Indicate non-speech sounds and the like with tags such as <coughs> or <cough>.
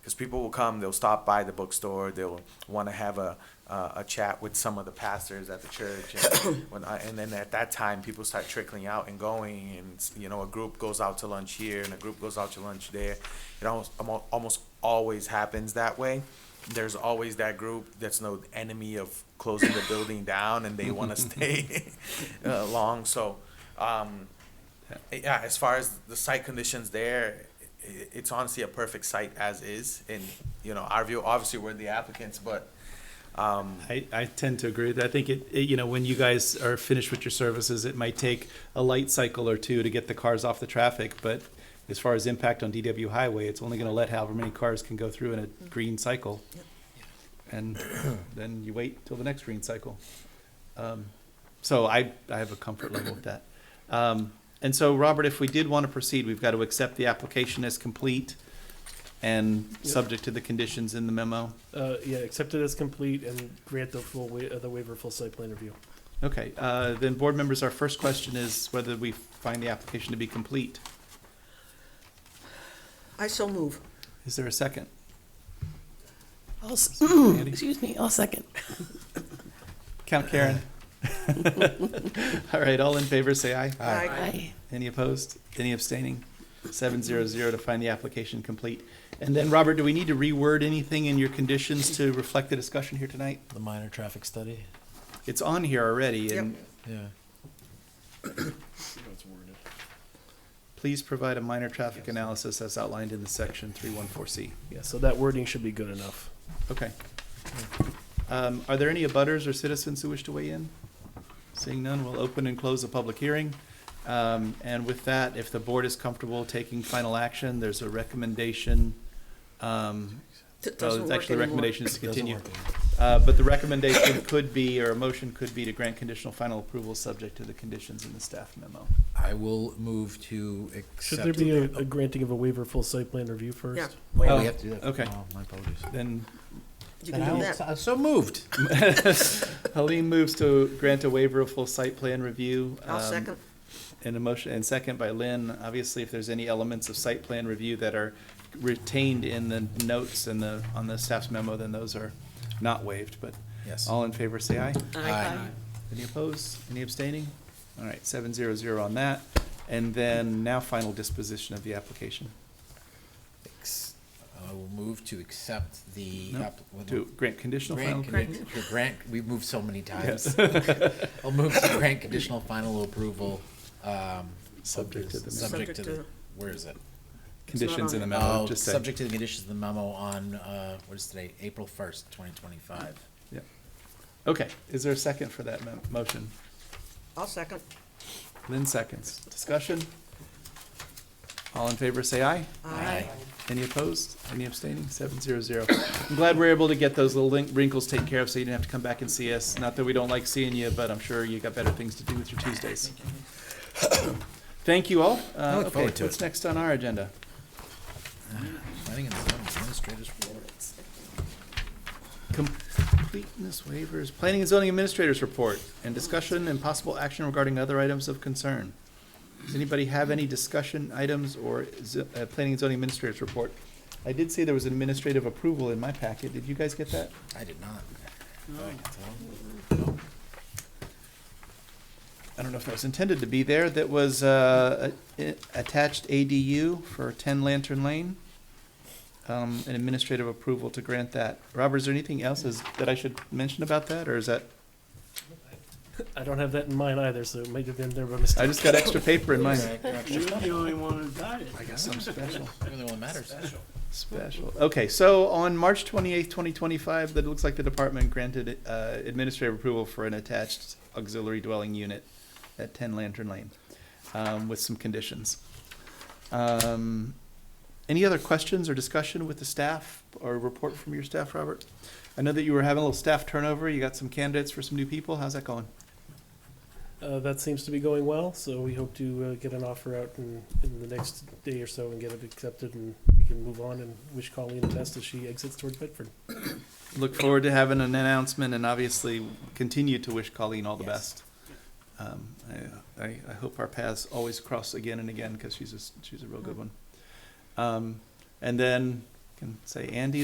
because people will come, they'll stop by the bookstore, they'll want to have a, uh, a chat with some of the pastors at the church. And, when I, and then at that time, people start trickling out and going, and you know, a group goes out to lunch here and a group goes out to lunch there. It almost almo- almost always happens that way. There's always that group that's no enemy of closing the building down, and they want to stay <laughs> uh, long. So. Um, yeah, as far as the site conditions there, i- it's honestly a perfect site as is. And, you know, our view, obviously, we're the applicants, but, um, I, I tend to agree. with that. I think it, it, you know, when you guys are finished with your services, it might take a light cycle or two to get the cars off the traffic, but as far as impact on DW Highway, it's only gonna let however many cars can go through in a green cycle. And then you wait till the next green cycle. Um, So I, I have a comfort level with that. Um, and so, Robert, if we did wanna proceed, we've gotta accept the application as complete and subject to the conditions in the memo. Uh, yeah, accept it as complete and grant the full wa- uh, the waiver full site plan review. Okay, uh, then, board members, our first question is whether we find the application to be complete. I so move. Is there a second? I'll, s- Andy? Mm. excuse me, I'll second. Count Karen. <laughs> All right, all in favor, say aye. Aye. Aye. Any opposed? Any abstaining? Seven zero zero to find the application complete. And then, Robert, do we need to reword anything in your conditions to reflect the discussion here tonight? The minor traffic study, It's on here already, and yeah. please provide a minor traffic analysis as outlined in the section three one four C. Yeah, so that wording should be good enough. Okay. Um, Are there any abutters or citizens who wish to weigh in? Seeing none, we'll open and close the public hearing. Um, And with that, if the board is comfortable taking final action, there's a recommendation. um, It oh, doesn't it's work Actually, the anymore. recommendation is to Doesn't continue. work. Uh, But the recommendation could be, or a motion could be to grant conditional final approval subject to the conditions in the staff memo. I will move to accept. Should there be a, a granting of a waiver full site plan review first? Yeah. Oh, Oh, we have to do that. okay. Oh, My apologies. Then You can do that. I'm so moved. Helene moves to grant a waiver of full site plan review. I'll um, second. And a motion, and second by Lynn. Obviously, if there's any elements of site plan review that are retained in the notes and the, on the staff's memo, then those are not waived, but Yes. all in favor, say aye. Aye. Any opposed? Any abstaining? All right, seven zero zero on that. And then now final disposition of the application. Ex- I will move to accept the. No, app- well, To grant conditional final. Grant, condi- to grant, we've moved so many times. Yes. <laughs> I'll move to grant conditional final approval, um. of Subject to this- the memo. Subject to Subject the, where is it? Conditions in the memo, Oh, just say. subject to the conditions of the memo on, uh, what is today, April first, twenty twenty-five. Yeah. Okay, is there a second for that mo- motion? I'll second. Lynn seconds. Discussion? All in favor, say aye. Aye. Any opposed? Any abstaining? Seven zero zero. I'm glad we're able to get those little link- wrinkles taken care of, so you didn't have to come back and see us. Not that we don't like seeing you, but I'm sure you got better things to do with your Tuesdays. <coughs> Thank you all. Uh, I look okay, forward to what's it. next on our agenda? Planning and zoning administrators report. Completeness waivers, planning and zoning administrators report, and discussion and possible action regarding other items of concern. Does anybody have any discussion items or z- uh, planning and zoning administrators report? I did see there was administrative approval in my packet. Did you guys get that? I did not. I don't know if that was intended to be there. That was uh, a- a- attached ADU for 10 Lantern Lane. Um, An administrative approval to grant that. Robert, is there anything else is- that I should mention about that, or is that? I don't have that in mind either, so it might have been there by mistake. I just got extra paper in mine. You're the only one who got it. I guess I'm special. the only one that matters. Special. Okay, so on March twenty-eighth, twenty twenty-five, that looks like the department granted uh, administrative approval for an attached auxiliary dwelling unit at ten Lantern Lane, um, with some conditions. Um, Any other questions or discussion with the staff or report from your staff, Robert? I know that you were having a little staff turnover. You got some candidates for some new people. How's that going? Uh, that seems to be going well, so we hope to uh, get an offer out in, in the next day or so and get it accepted, and we can move on and wish Colleen the best as she exits toward Bedford. Look forward to having an announcement and obviously continue to wish Colleen all the Yes. best. Um, I, I, I hope our paths always cross again and again because she's a, s- she's a real good one. Um, and then can say, Andy,